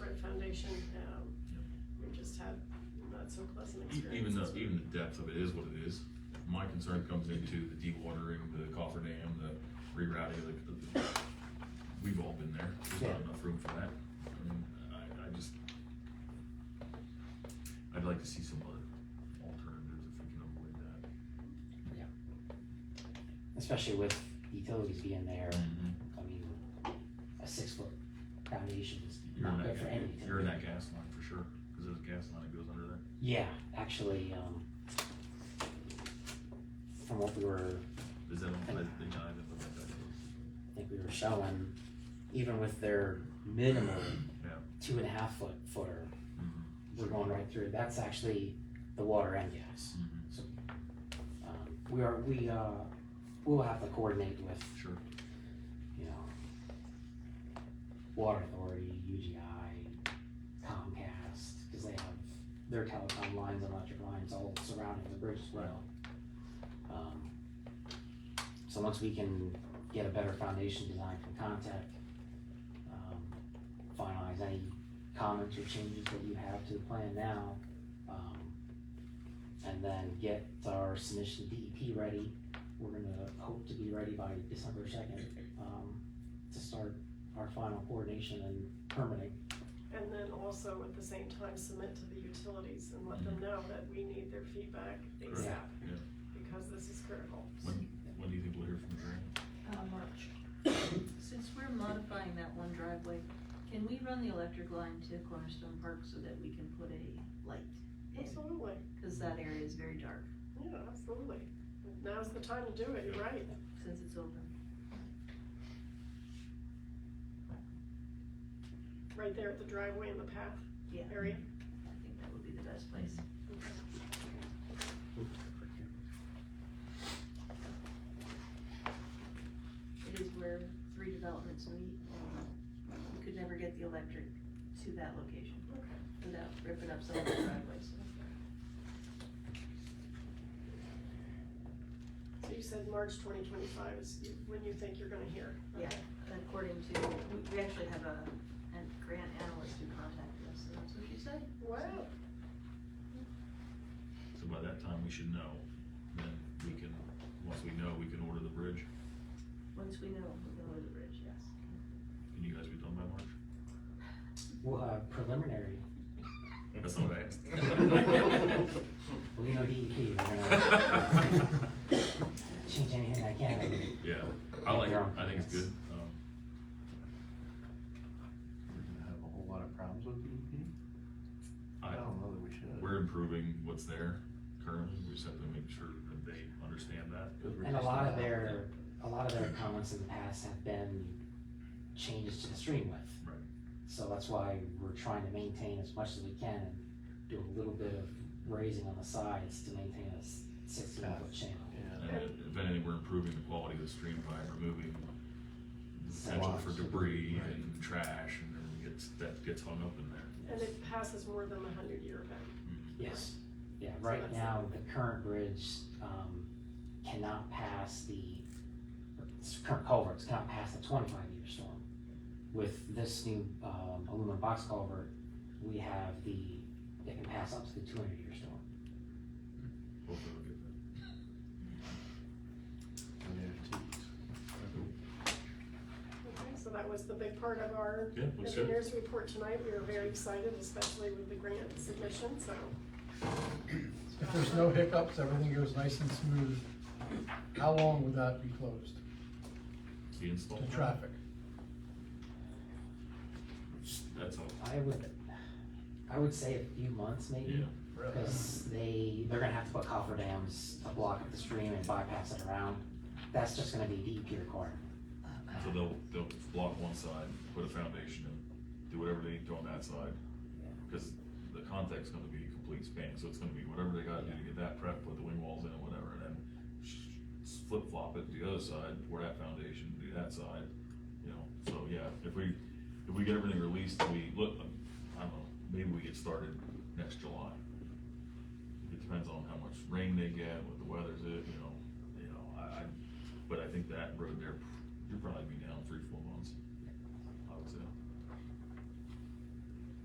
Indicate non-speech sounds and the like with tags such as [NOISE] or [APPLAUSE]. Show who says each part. Speaker 1: um, that's so pleasant
Speaker 2: E-
Speaker 1: experience.
Speaker 2: Even the, even the depth of it is what it is. My concern comes into the dewatering, the coffer dam, the rerouting, the, the, we've all been there. There's not
Speaker 3: Yeah.
Speaker 2: enough room for that. I mean, I, I just, I'd like to see some other alternatives if we can avoid that.
Speaker 3: especially with utilities being there, I mean, a six foot foundation is
Speaker 2: You're in
Speaker 3: not
Speaker 2: that,
Speaker 3: good for
Speaker 2: ga-
Speaker 3: anything.
Speaker 2: you're in that gas line for sure, cause there's a gas line that goes under there.
Speaker 3: Yeah, actually, um, from what we were,
Speaker 2: Is that, on- I think I haven't looked at that.
Speaker 3: I think we were showing, even with their minimum
Speaker 2: Yeah.
Speaker 3: two and a half foot footer,
Speaker 2: Mhm.
Speaker 3: we're going right through, that's actually the water and gas.
Speaker 2: Mhm.
Speaker 3: Um, we are, we, uh, we'll have to coordinate with,
Speaker 2: Sure.
Speaker 3: you know, Water Authority, UGI, Comcast, because they have their telecom lines and electric lines all surrounding the bridge as well. Um, So once we can get a better foundation design from Contact, um, finalize any comments or changes that you have to the plan now, um, and then get our submission to DEP ready. We're gonna hope to be ready by December second, um, to start our final coordination and permitting.
Speaker 1: And then also at the same time submit to the utilities and let them know that we need their feedback ASAP.
Speaker 3: Yeah.
Speaker 2: Yeah.
Speaker 1: Because this is critical.
Speaker 2: When, when do you think we'll hear from Grant?
Speaker 4: Uh, March. Since we're modifying that one driveway, can we run the electric line to Cornerstone Park so that we can put a light in?
Speaker 1: Absolutely,
Speaker 4: Cause that area is very dark
Speaker 1: yeah, absolutely. Now's the time to do it, you're right.
Speaker 4: since it's open.
Speaker 1: Right there at the driveway and the path
Speaker 4: Yeah, Mm-hmm. I
Speaker 1: area.
Speaker 4: think that would be the best place. It is where three developments meet and you could never get the electric to that location
Speaker 1: Okay.
Speaker 4: without ripping up some of the driveways.
Speaker 1: So you said March twenty twenty-five is when you think you're gonna hear.
Speaker 4: Yeah, according to, we- we actually have a, a grant analyst who contacted us, so that's what she said.
Speaker 1: Wow,
Speaker 2: So by that time, we should know, then we can, once we know, we can order the bridge,
Speaker 4: Once we know, we can go to the bridge, yes.
Speaker 2: can you guys be done by March?
Speaker 3: Well, uh, preliminary,
Speaker 2: That's not what I asked.
Speaker 3: we know E DEP, we're
Speaker 2: [LAUGHS]
Speaker 3: gonna change anything I can.
Speaker 2: Yeah, I like it, I think it's good, um,
Speaker 5: We're gonna have a whole lot of problems with DEP? I
Speaker 2: I,
Speaker 6: Oh,
Speaker 5: don't know that we should.
Speaker 2: we're improving what's there currently, we just have to make sure that they understand that.
Speaker 5: 'Cause we're
Speaker 3: And a
Speaker 5: just
Speaker 3: lot of
Speaker 5: not-
Speaker 3: their, a lot of their comments in the past have been changes to the stream width.
Speaker 2: Right.
Speaker 3: So that's why we're trying to maintain as much as we can and do a little bit of raising on the sides to maintain a s- sixteen foot channel.
Speaker 5: Yeah,
Speaker 2: And if anything, we're improving the quality of the stream by removing the potential for
Speaker 5: Lots.
Speaker 2: debris and trash, and then gets, that gets hung up in there.
Speaker 1: and it passes more than the hundred year event.
Speaker 3: Yes, yeah,
Speaker 1: So
Speaker 3: right
Speaker 1: that's-
Speaker 3: now, the current bridge, um, cannot pass the, s- current culverts cannot pass the twenty-five year storm. With this new, um, aluminum box culvert, we have the, it can pass up to the two hundred year storm.
Speaker 2: Hopefully we'll get that.
Speaker 5: and there's teeth.
Speaker 1: Okay, so that was the big part of our
Speaker 2: Yeah, looks good.
Speaker 1: engineers report tonight. We were very excited, especially with the grant submission, so.
Speaker 6: If there's no hiccups, everything goes nice and smooth, how long would that be closed
Speaker 2: The install.
Speaker 6: to traffic?
Speaker 2: That's all.
Speaker 3: I would, I would say a few months
Speaker 2: Yeah,
Speaker 3: maybe,
Speaker 6: Really?
Speaker 3: because they, they're gonna have to put coffer dams to block up the stream and bypass it around. That's just gonna be DEP requirement.
Speaker 2: so they'll, they'll block one side, put a foundation in, do whatever they need to on that side. Cause the contact's gonna be a complete span, so it's gonna be whatever they gotta do to get that prep, put the wing walls in and whatever, and then flip flop it to the other side, pour that foundation, do that side, you know, so yeah, if we, if we get everything released, we look, I don't know, maybe we get started next July. It depends on how much rain they get, what the weather's it, you know, you know, I, I, but I think that road there, you'll probably be down three, four months.